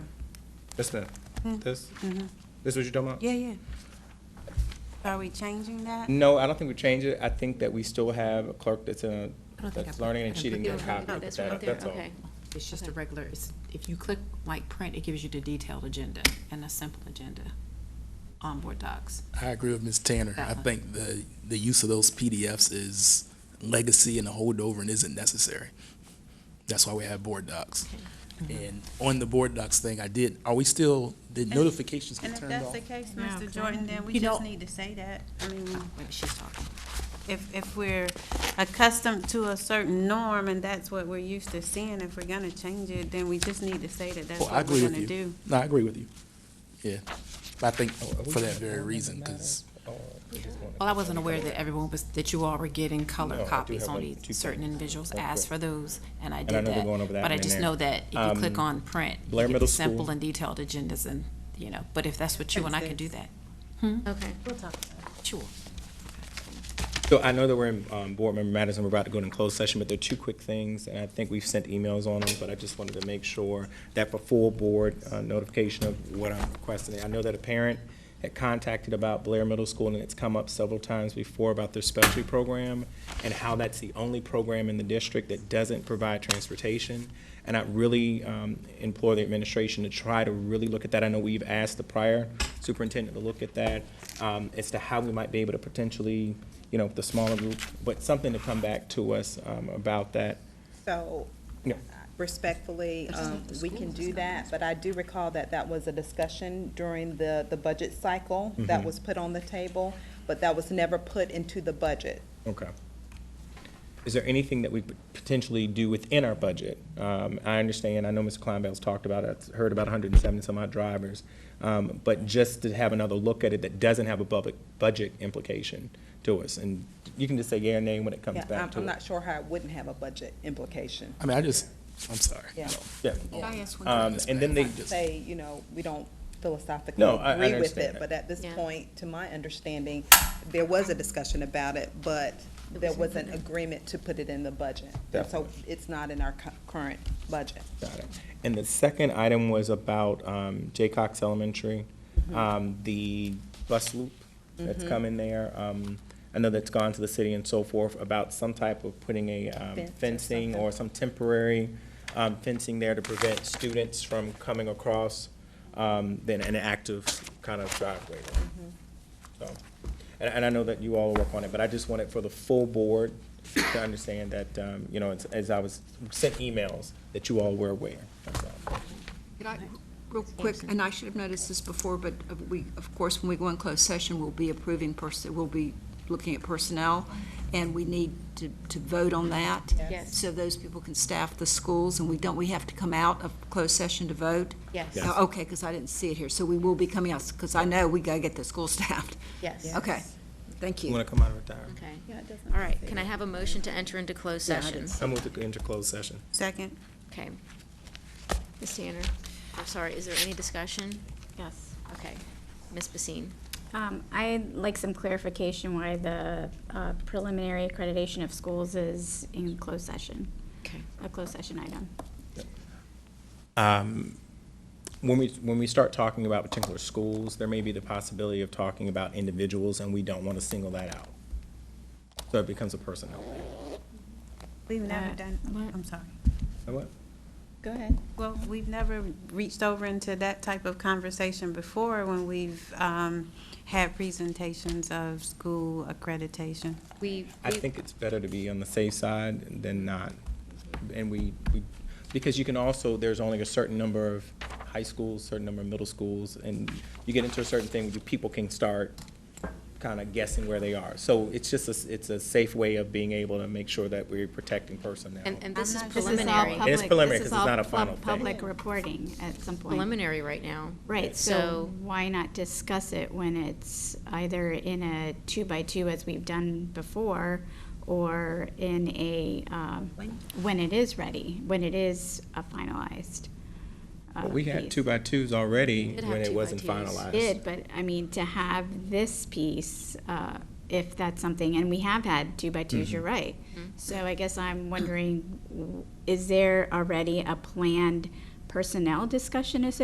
That's the, Hmm. this, this what you're talking about? Mm-hmm. Yeah, yeah. Are we changing that? No, I don't think we change it. I think that we still have a clerk that's, uh, I don't think that's I put- learning I and don't she didn't think get a I copy. put of this that. right there, That's all. okay. It's just a Okay. regular, it's, if you click like print, it gives you the detailed agenda and a simple agenda on board docs. I agree with Ms. Tanner. I That Uh-huh. one. think the, the use of those PDFs is legacy and a holdover and isn't necessary. That's why we have board docs. And on the board docs thing, I did, are we still, did notifications Mm-hmm. And get if turned that's off? the case, No, Mr. correct. Jordan, then we You just don't- need to say that. I mean, Wait, she's talking. uh, if, if we're accustomed to a certain norm and that's what we're used to seeing, if we're gonna change it, then we just need to say that that's Well, Oh, I what agree we're with gonna do. you. No, I agree with you. Yeah. But I think Oh, are we for that doing very all reason, matter, because or we just wanna- Well, I wasn't aware that everyone was, that you all were getting No, I color do copies have on one, these two certain copies. individuals, Okay. asked for those, and I And I did know we're going over that that. But I one in just there. know that if you click Um, on print, you Blair get the Middle School. simple and detailed agendas and, you know, but if that's what you want, I can do that. Okay. Sure. So I know that we're in, um, board member matters and we're about to go into closed session, but there are two quick things, and I think we've sent emails on them, but I just wanted to make sure that for full board uh, notification of what I'm requesting. I know that a parent had contacted about Blair Middle School, and it's come up several times before about their specialty program and how that's the only program in the district that doesn't provide transportation. And I really, um, implore the administration to try to really look at that. I know we've asked the prior superintendent to look at that, um, as to how we might be able to potentially, you know, the smaller group, but something to come back to us um, about that. So Yeah. respectfully, But it's um, not the we school, can it's do not that, but I do recall that that was a discussion during the, the budget cycle Mm-hmm. that was put on the table, but that was never put into the budget. Okay. Is there anything that we could potentially do within our budget? Um, I understand, I know Mr. Kleinbell's talked about it, I've heard about hundred and seventy some odd drivers. Um, but just to have another look at it that doesn't have a public budget implication to us. And you can just say yeah or nay when it comes Yeah, back I'm, to it. I'm not sure how it wouldn't have a budget implication. I mean, I just, I'm sorry. Yeah. Yeah. Oh, I ask one Um, and then they, Say, you know, we don't philosophically No, I- I agree with understand it, that. but at this Yeah. point, to my understanding, there was a discussion about it, but there was an agreement to put it in the budget. And So it's not in our cu- current budget. Got it. And the second item was about um, Jay Cox Elementary, Mm-hmm. um, the bus loop that's come in there. um, I know that's gone to the city and so forth, about some type of putting a um, Fence or fencing or some temporary um, fencing there to prevent students from coming across um, than an active kind of driveway. Mm-hmm. So, and, and I know that you all work on it, but I just want it for the full board to understand that, um, you know, as, as I was sent emails, that you all were aware. That's all. Could I, real quick, and I should have noticed this before, but uh, we, of course, when we go in closed session, we'll be approving person, we'll be looking at personnel, and we need to, to vote on that. Yes. So those people can staff the schools, and we don't, we have to come out of closed session to vote? Yes. Yes. Oh, Okay, because I didn't see it here, so we will be coming out, because I know we gotta get the school staffed. Yes. Okay, thank You you. want to come out and retire? Okay. Yeah, it doesn't All right, can I have a motion to enter into closed Yeah, I session? didn't I move to enter closed session. Second? Okay. Ms. Tanner, I'm sorry, is there any discussion? Yes. Okay. Ms. Basine? Um, I'd like some clarification why the uh, preliminary accreditation of schools is in closed session, Okay. a closed session item. Um, When we, when we start talking about particular schools, there may be the possibility of talking about individuals, and we don't want to single that out. So it becomes a personnel. We've never Uh, done, what? I'm sorry. Now what? Go ahead. Well, we've never reached over into that type of conversation before when we've, um, had presentations of school accreditation. We, I think it's better to be on the safe side than not. And we, we, because you can also, there's only a certain number of high schools, certain number of middle schools, and you get into a certain thing, you- people can start kind of guessing where they are. So it's just, a s- it's a safe way of being able to make sure that we're protecting personnel. and, and this is I'm not- This is all preliminary, public- preliminary this is 'cause it's all not a pub- final thing. Public reporting at some point. preliminary right now. Right, So- so why not discuss it when it's either in a two-by-two as we've done before, or in a, um, when it is ready, when it is a finalized uh, We piece. had two-by-twos already did have when it wasn't two-by-twos. finalized. did, but I mean, to have this piece, uh, if that's something, and we have had two by 2s you're right. So I guess I'm wondering, w- is there already a planned personnel discussion associated